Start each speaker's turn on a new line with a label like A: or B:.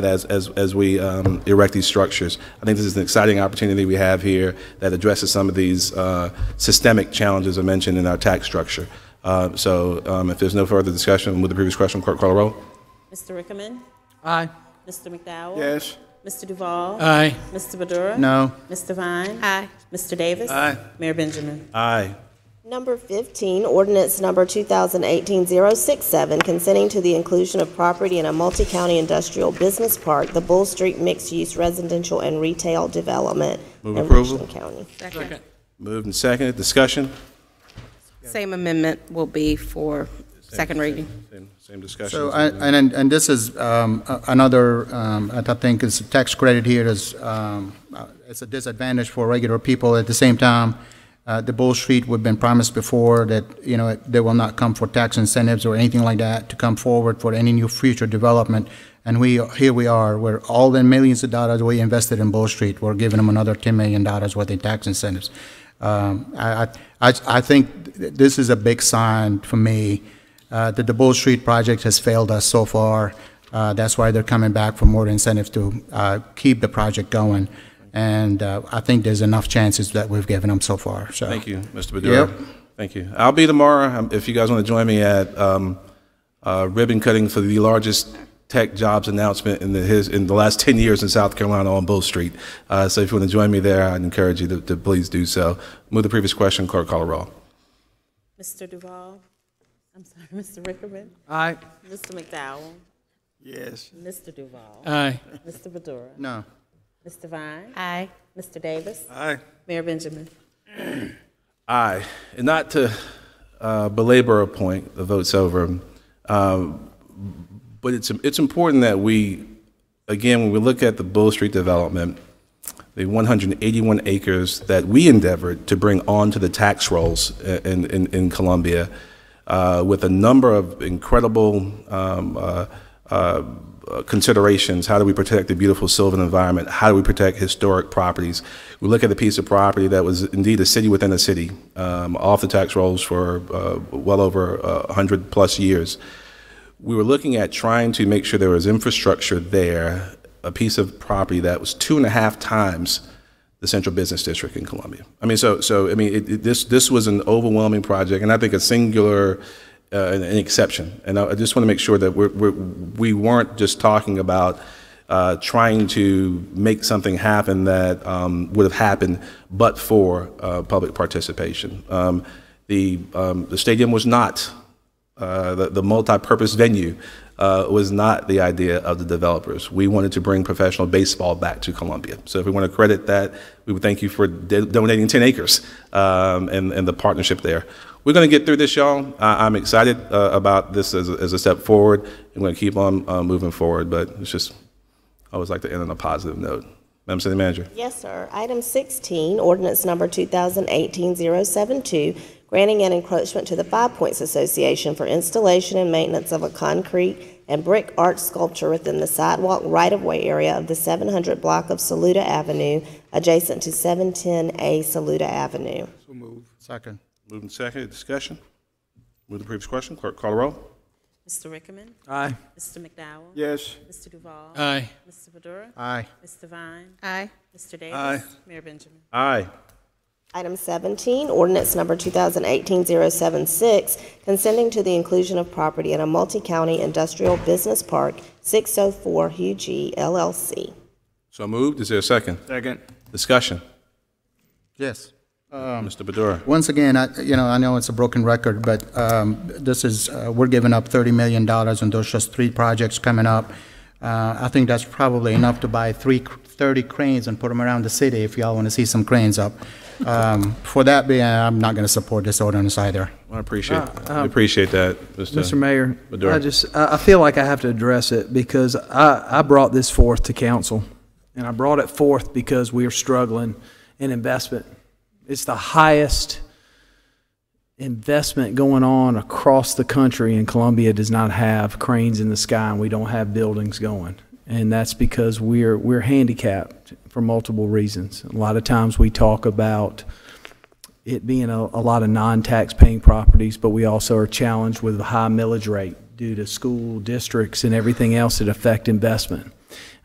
A: as, as, as we um, erect these structures. I think this is an exciting opportunity we have here that addresses some of these uh, systemic challenges I mentioned in our tax structure. Uh, So um, if there's no further discussion, with the previous question, clerk call a roll?
B: Mr. Rickerman,
C: Aye.
B: Mr. McDowell?
D: Yes.
B: Mr. Duval?
C: Aye.
B: Mr. Badura?
D: No.
B: Mr. Vine?
E: Aye.
B: Mr. Davis?
C: Aye.
B: Mayor Benjamin?
A: Aye.
F: Number 15, ordinance number 2018-067, consenting to the inclusion of property in a multi-county industrial business park, the Bull Street Mixed-Use Residential and Retail Development
A: Move
F: in
A: approval.
F: Richland County.
E: Second.
A: Moved and seconded, discussion?
E: Same amendment will be for second reading.
A: Same- Same discussion.
D: So, I- and, and- and this is um, a- another, um, I th- think, is tax credit here is, um, uh, it's a disadvantage for regular people. At the same time, uh, the Bull Street, we've been promised before that, you know, they will not come for tax incentives or anything like that to come forward for any new future development. And we, here we are, where all the millions of dollars we invested in Bull Street, we're giving them another $10 million worth in tax incentives. Um, I, I, I- I think th- this is a big sign for me uh, that the Bull Street project has failed us so far. Uh, That's why they're coming back for more incentives to uh, keep the project going. And uh, I think there's enough chances that we've given them so far, so.
A: Thank you, Mr. Bedura.
D: Yep.
A: Thank you. I'll be tomorrow, um, if you guys want to join me at um, uh, ribbon cutting for the largest tech jobs announcement in the, his, in the last 10 years in South Carolina on Bull Street. Uh, So if you want to join me there, I'd encourage you to, to please do so. Move the previous question, clerk call a roll.
B: Mr. Duval? I'm sorry, Mr. Rickerman?
C: Aye.
B: Mr. McDowell?
D: Yes.
B: Mr. Duval?
C: Aye.
B: Mr. Badura?
D: No.
B: Mr. Vine?
E: Aye.
B: Mr. Davis?
A: Aye.
B: Mayor Benjamin?
A: Aye. And not to uh, belabor a point, the vote's over, um, but it's, it's important that we, again, when we look at the Bull Street development, the 181 acres that we endeavored to bring onto the tax rolls i- in, in, in Columbia, uh, with a number of incredible um, uh, uh, considerations. How do we protect the beautiful sylvan environment? How do we protect historic properties? We look at a piece of property that was indeed a city within a city, um, off the tax rolls for uh, well over uh, 100 plus years we were looking at trying to make sure there was infrastructure there, a piece of property that was two and a half times the central business district in Columbia. I mean, so, so, I mean, it, it- this, this was an overwhelming project, and I think a singular, uh, an, an exception. And I, I just want to make sure that we're, we're, we weren't just talking about uh, trying to make something happen that um, would have happened but for uh, public participation. Um, the, um, the stadium was not uh, the, the multi-purpose venue uh, was not the idea of the developers. We wanted to bring professional baseball back to Columbia. So if we want to credit that, we would thank you for de- donating 10 acres um, and, and the partnership there. We're going to get through this, y'all. I- I'm excited uh, about this as a, as a step forward. I'm going to keep on uh, moving forward, but it's just, I always like to end on a positive note. Madam City Manager.
F: Yes, sir. Item 16, ordinance number 2018-072, granting an encroachment to the Five Points Association for installation and maintenance of a concrete and brick art sculpture within the sidewalk right-of-way area of the 700 block of Saluda Avenue, adjacent to 710A Saluda Avenue.
D: Second.
A: Moving second, discussion. Move the previous question. Clerk, call the roll.
B: Mr. Rickerman?
C: Aye.
B: Mr. McDowell?
D: Yes.
B: Mr. Duval?
C: Aye.
B: Mr. Badura?
D: Aye.
B: Mr. Vine?
E: Aye.
B: Mr. Davis?
A: Aye.
B: Mayor Benjamin?
A: Aye.
F: Item 17, ordinance number 2018-076, consenting to the inclusion of property in a multi-county industrial business park, 604 Hugh G. LLC.
A: So moved. Is there a second?
D: Second.
A: Discussion.
D: Yes.
A: Mr. Bedura.
D: Once again, I, you know, I know it's a broken record, but um, this is, uh, we're giving up $30 million, and there's just three projects coming up. Uh, I think that's probably enough to buy three, 30 cranes and put them around the city if y'all want to see some cranes up. Um, For that being, I'm not going to support this ordinance either.
A: I appreciate, I appreciate that, Mr.
G: Mr. Mayor,
A: Bedura.
G: I just, I I feel like I have to address it because I, I brought this forth to council. And I brought it forth because we are struggling in investment. It's the highest investment going on across the country and Columbia does not have cranes in the sky and we don't have buildings going. And that's because we're, we're handicapped for multiple reasons. A lot of times we talk about it being a, a lot of non-tax paying properties, but we also are challenged with a high millage rate due to school districts and everything else that affect investment.